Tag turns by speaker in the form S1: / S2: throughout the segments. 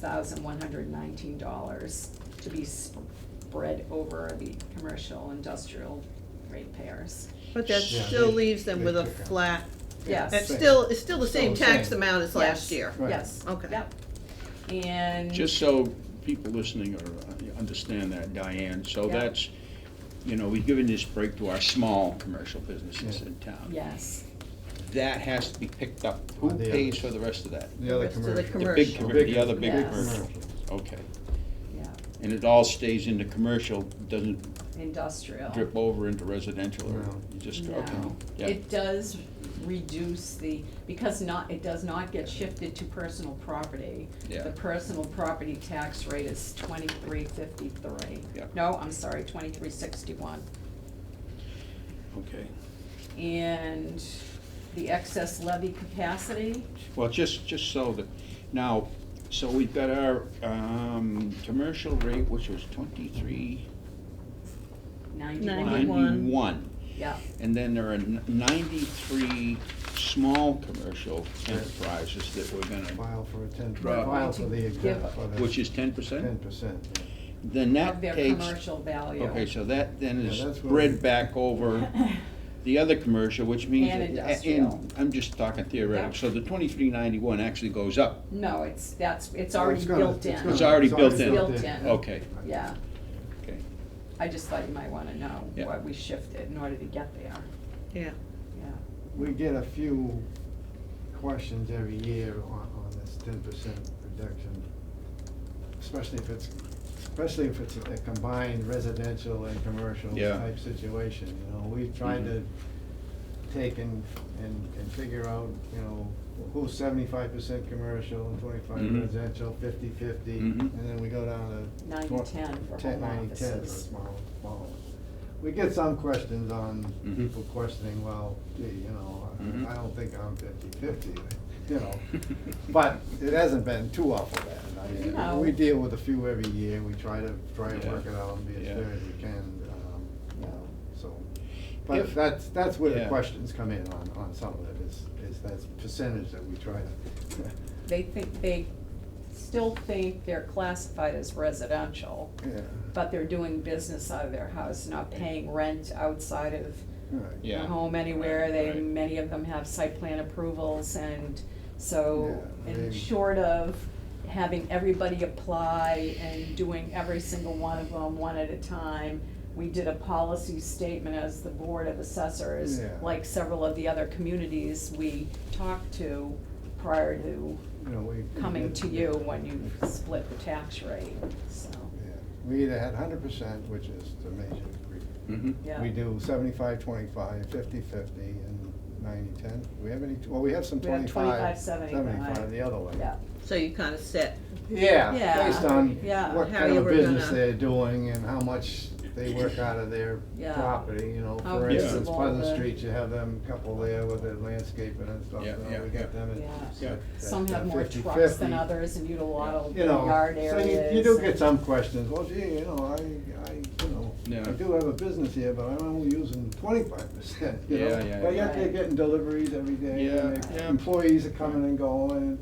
S1: thousand one hundred nineteen dollars to be spread over the commercial industrial ratepayers.
S2: But that
S3: Yeah,
S2: still
S3: they-
S2: leaves them
S3: they
S2: with a
S3: took out.
S2: flat,
S1: Yes.
S2: it's
S1: That's
S3: Same.
S2: still, it's still the same
S3: Still the
S2: tax
S3: same.
S2: amount as last year.
S3: Right.
S1: Yes.
S2: Okay.
S1: Yep. And.
S4: Just so people listening are, uh, understand that, Diane, so
S1: Yeah.
S4: that's, you know, we've given this break to our small commercial businesses
S3: Yeah.
S4: in town.
S1: Yes,
S4: That has to be picked up. Who
S3: By the
S4: pays
S3: others.
S4: for the rest of that?
S3: The other
S2: Rest of the
S3: commercial.
S4: The
S2: Commercial.
S4: big, commer- the other big
S1: Yes.
S4: commercial. Okay.
S1: yeah,
S4: And it all stays in the commercial, doesn't
S1: industrial.
S4: drip over into residential or
S3: No.
S4: you just, okay,
S1: No,
S4: yeah.
S1: it does reduce the, because not, it does not get shifted to personal property.
S4: Yeah.
S1: The personal property tax rate is twenty-three fifty-three.
S4: Yeah.
S1: No, I'm sorry, twenty-three sixty-one.
S4: Okay.
S1: And the excess levy capacity,
S4: Well, just, just so that, now, so we've got our, um, commercial rate, which was twenty-three
S1: ninety-one,
S2: Ninety.
S4: ninety-one.
S1: yeah,
S4: And then there are n- ninety-three small commercial
S3: Yeah.
S4: enterprises that we're gonna,
S3: File for a ten,
S4: Right.
S3: file for the,
S1: Give-
S3: exempt for the.
S4: which is ten
S3: Ten
S4: percent?
S3: percent,
S4: Then
S1: of
S4: that
S1: their
S4: takes,
S1: commercial Oh, value.
S4: okay, so that then
S3: Yeah,
S4: is
S3: that's what we-
S4: spread back over the other commercial, which means.
S1: And
S4: that- a-
S1: industrial.
S4: And, I'm just talking theoretical,
S1: Yeah.
S4: so the twenty-three ninety-one actually goes up,
S1: No, it's, that's, it's
S3: Oh,
S1: already
S3: it's gonna-
S1: built in.
S3: gonna-
S4: It's already built in.
S1: Built in.
S4: okay,
S1: Yeah,
S4: okay.
S1: I just thought you might wanna know
S4: Yeah.
S1: what we shifted in order to get there,
S2: Yeah,
S1: yeah.
S3: We get a few questions every year on, on this ten percent reduction, especially if it's, especially if it's a combined residential and commercial
S4: Yeah.
S3: type situation, you know? We've tried to
S4: Mhm.
S3: take and, and, and figure out, you know, who's seventy-five percent commercial and twenty-five
S4: Mhm.
S3: residential, fifty-fifty,
S4: Mhm.
S3: and then we go down to
S1: Nine
S3: Well,
S1: and ten for
S3: ten,
S1: home
S3: nine, ten for
S1: offices.
S3: small, small ones. We get some questions on,
S4: Mhm.
S3: people questioning, well, gee, you know,
S4: Mhm.
S3: I- I don't think I'm fifty-fifty, you know. But it hasn't been too awful bad, I
S1: No.
S3: mean, we deal with a few every year, we try to, try and work
S4: Yeah.
S3: it out and be as
S4: Yeah.
S3: fair as we can, um, you know, so.
S4: If-
S3: But that's, that's where the
S4: Yeah.
S3: questions come in on, on some of it, is, is that percentage that we try to,
S1: They think, they still think they're classified as residential,
S3: yeah,
S1: but they're doing business out of their house, not paying rent outside of
S3: right.
S4: Yeah.
S1: the home anywhere. They,
S4: Right.
S1: many of them have site plan approvals and so,
S3: Yeah,
S1: and
S3: they-
S1: short of having everybody apply and doing every single one of them one at a time, we did a policy statement as the Board of Assessors,
S3: Yeah.
S1: like several of the other communities we talked to prior to
S3: You know, we. we
S1: coming
S3: get-
S1: to you when you split the tax rate, so,
S3: Yeah, we either had hundred percent, which is the major agree.
S4: Mhm.
S1: yeah.
S3: We do seventy-five, twenty-five, fifty-fifty, and ninety-ten. Do we have any, well, we have some
S1: We have
S3: twenty-five,
S1: 25, 75.
S3: seventy-five, the other way.
S1: Yeah,
S2: so you kinda set,
S3: Yeah,
S1: Yeah,
S3: based on
S1: yeah,
S3: what
S2: how
S3: kind
S2: you
S3: of
S2: were
S3: business
S2: gonna-
S3: they're doing and how much they work out of their
S1: Yeah.
S3: property, you know.
S1: How
S3: For instance,
S1: visible
S3: Pleasant
S1: the-
S3: Street, you have them couple there with their landscaping and stuff, you
S4: Yeah,
S3: know,
S4: yeah,
S3: we
S4: yeah.
S3: got them
S1: Yeah.
S3: at. at-
S1: some have
S3: at
S1: more trucks than
S3: 50-50.
S1: others and utilize
S3: you know,
S1: yard
S3: so
S1: areas.
S3: you, you do
S1: and-
S3: get some questions, well, gee, you know, I, I, you know,
S4: Yeah.
S3: I do have a business here, but I'm only using twenty-five percent, you know?
S4: Yeah, yeah,
S3: But yet
S1: yeah.
S3: they're getting deliveries every day, and
S4: Yeah,
S3: the
S4: yeah.
S3: employees are coming and going, and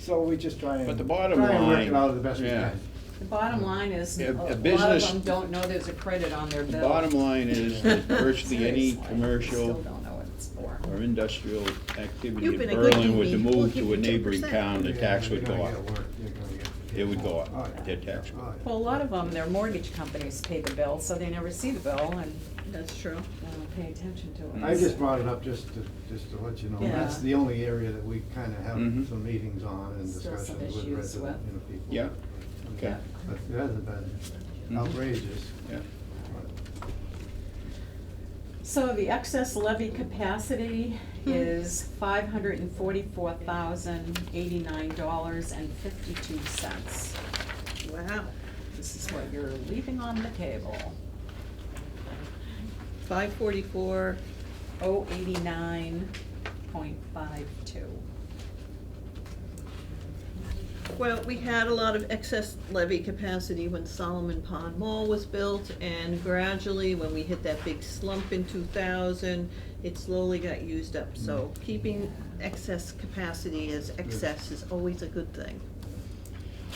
S3: so we just try and.
S4: But the bottom
S3: Try and work it
S4: line,
S3: out the best we
S4: yeah.
S3: can.
S1: The bottom line is,
S4: Yeah,
S1: a
S4: a
S1: lot of
S4: business-
S1: them don't know there's a credit on their
S4: The
S1: bill.
S4: bottom line is that virtually any
S1: Seriously,
S4: commercial.
S1: Still don't know what it's for.
S4: or industrial activity
S2: You've
S4: in
S2: been a good
S4: Berlin would to
S2: DB. We'll
S4: move
S2: give
S4: to a
S2: you
S4: neighboring
S2: 10%.
S4: town, the
S3: Yeah,
S4: tax
S3: you're
S4: would
S3: gonna
S4: go up.
S3: get work, you're gonna get-
S4: It would go up.
S3: Oh, yeah.
S4: Their tax would go up.
S3: Oh, yeah.
S1: Well, a lot of them, their mortgage companies pay the bill, so they never see the bill and
S2: that's true.
S1: they don't pay attention to it.
S3: I just brought it up just to, just to let you know, that's
S1: Yeah.
S3: the only area that we kinda have
S4: Mhm.
S3: some meetings on and
S1: Still some
S3: discussions with
S1: issues
S3: resident, you know, people.
S4: Yeah. Okay.
S3: But it hasn't been
S4: Mhm.
S3: outrageous.
S4: Yeah.
S3: but-
S1: So the excess levy capacity is five hundred and forty-four thousand, eighty-nine dollars and fifty-two cents.
S2: Wow,
S1: This is what you're leaving on the table.
S2: five forty-four,
S1: Oh, eighty-nine point five two.
S2: well, we had a lot of excess levy capacity when Solomon Pond Mall was built, and gradually, when we hit that big slump in two thousand, it slowly got used up, so keeping excess capacity as excess is always a good thing.